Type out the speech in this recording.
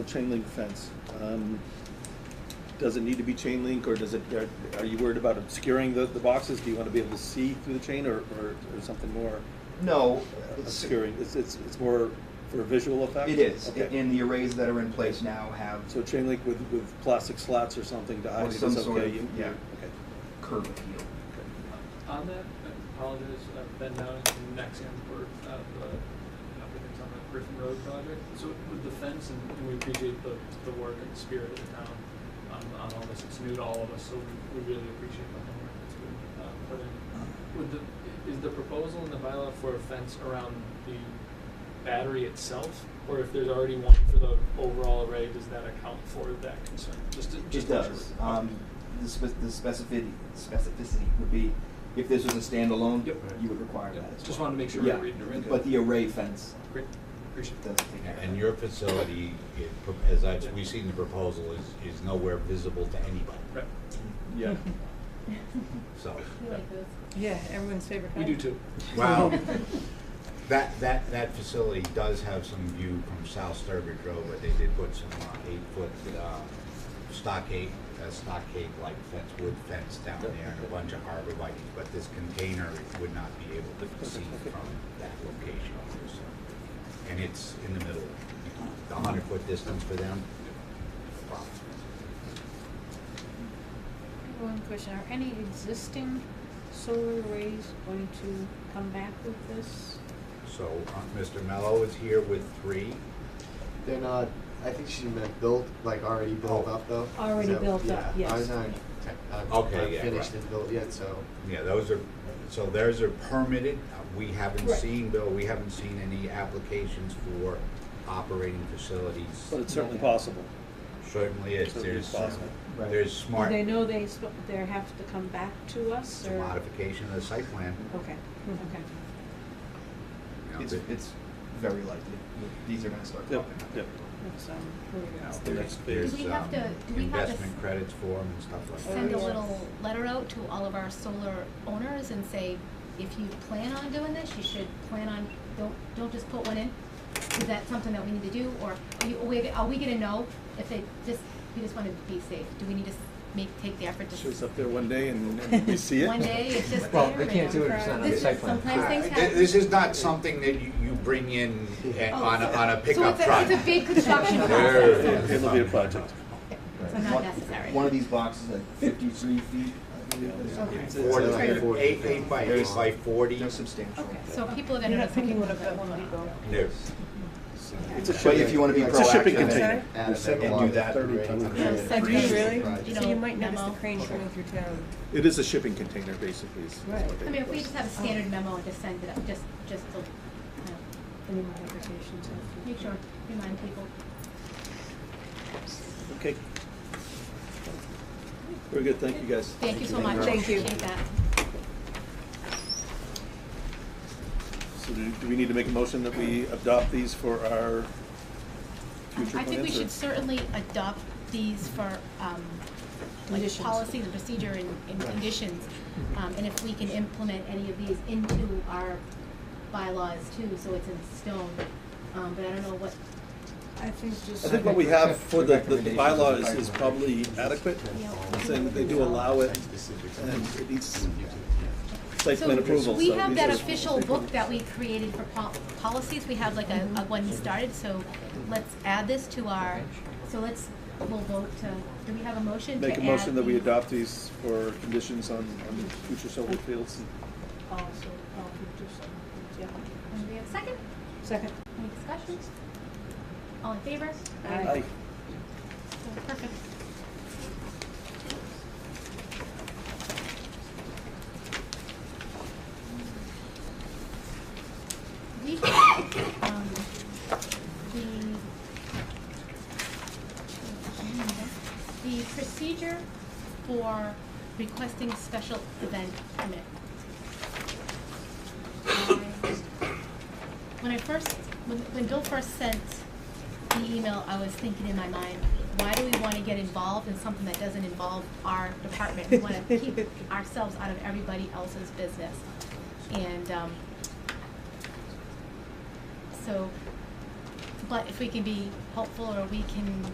The chain link fence, um, does it need to be chain link, or does it, are- are you worried about obscuring the, the boxes? Do you want to be able to see through the chain, or, or or something more No. it's- obscuring? It's, it's, it's more for a visual effect? It is, Okay. and the arrays that are in place now have So chain link with, with plastic slats or something to hide Or it is some sort okay? of- You- yeah. Okay. curb appeal. On that, I apologize, uh, I've been down in Nexhamport, uh, the, applicants on the Griffin Road project. So with the fence, and, and we appreciate the, the work and spirit of the town on, on all this, it's new to all of us, so we, we really appreciate the homework that's been, uh, put in. Would the, is the proposal in the bylaw for a fence around the battery itself? Or if there's already one for the overall array, does that account for that concern? Just, to- It just. to make sure does. we're- Um, the spec- the specificity, specificity would be, if this was a standalone, Yep. you would require that as well. Just wanted to make sure Yeah, we're reading it right. But the array fence Great, appreciate does that. take care of that. And your facility, it pro- as I, we've seen the proposal, is, is nowhere visible to anybody, Right. Yeah. so. You like those? Yeah, everyone's favorite We kind. do too. Wow, that, that, that facility does have some view from South Sturbridge Road, but they did put some uh, eight-foot uh, stockade, uh, stockade-like fence, wood fence down there, and a bunch of harbor lights, but this container would not be able to be seen from that location, so. And it's in the middle, the hundred-foot distance for them. Wow. One question, are any existing solar arrays going to come back with this? So, uh, Mr. Mello is here with three. They're not. I think she meant built, like already built Oh. up though. Already Is that- built up, Yeah, yes. ours aren't. tech- aren't- Okay, aren't yeah, Finished right. and built yet, so. Yeah, those are, so theirs are permitted. Uh, We haven't Right. seen, Bill, we haven't seen any applications for operating facilities. But it's certainly possible. Certainly is, Certainly there's, uh, possible. Right. there's Do smart, they it's know they, sp- they have to come back to us a or? modification of the site plan. Okay, okay. you know, It's, that- it's very likely, these are gonna start Yep, popping up. yep. That's, um, here we go. The next there's, phase. Do we have um, to- do we have to Investment s- credits for them and stuff like that. send a Alright. little letter out to all of our solar owners and say, if you plan on doing this, you should plan on, don't, don't just put one in. Is that something that we need to do, or are you, are we, are we gonna know if they just, we just wanna be safe? Do we need to s- make, take the effort to? s- Shows up there one day and and we see it. One day, it's just there. Well, they can't do it if and- it's not on This the is- site plan. Sometimes things Uh, th- This happen. is not something that you, you bring in uh, Oh, on a, so- on a pickup So truck. it's a, it's a big construction There process. it is. It'll be a project. So not One- necessary. One of these boxes at fifty-three feet, I believe it is. Okay. It's- it's Forty, like- Okay. eight, eight by Very eight small. by forty. They're substantial. Okay, so people are gonna You're know not thinking something what about that what's one going on. depot. No. It's a But if shipping, you wanna be It's a shipping proactive container. and Add a Sorry? and megawatt do that. Thirty array. ton. Yeah, Yeah. second Do you really? Right. So you might notice the Memo. crane shooting through town. it is a shipping container, basically, is is Right. what they. I mean, if we request. just have a standard memo and just send it up, just, just to, you know, Any modifications? of- Make sure, remind people. Okay. Very good, thank you guys. Thank you so much. Thank you. Appreciate that. So do, do we need to make a motion that we adopt these for our future plans? I think we or- should certainly adopt these for, um, like Conditions. policy, the procedure and, and conditions. Mm-hmm. Um, and if we can implement any of these into our bylaws too, so it's in stone, um, but I don't know what, I think just. I think what we have Except for for the, the- the recommendations. bylaw is, is probably adequate, you know. saying they do allow it, and it needs site So plan approval, so. We have these that are- official book that we created for pol- policies, we have like a, Mm-hmm. a one started, so Mm-hmm. let's add this to our, so let's, we'll vote to, do we have a motion to Make a add motion that we these? adopt these for conditions on, on future solar fields. Oh, so, oh, we do some, yeah. And we have a second, Second. any discussion? All in favor? Aye. Aye. So Perfect. We, um, the, the procedure for requesting special event permit. When I first, when, when Bill first sent the email, I was thinking in my mind, why do we wanna get involved in something that doesn't involve our department? We wanna keep ourselves out of everybody else's business. And, um, so but if we can be helpful or we can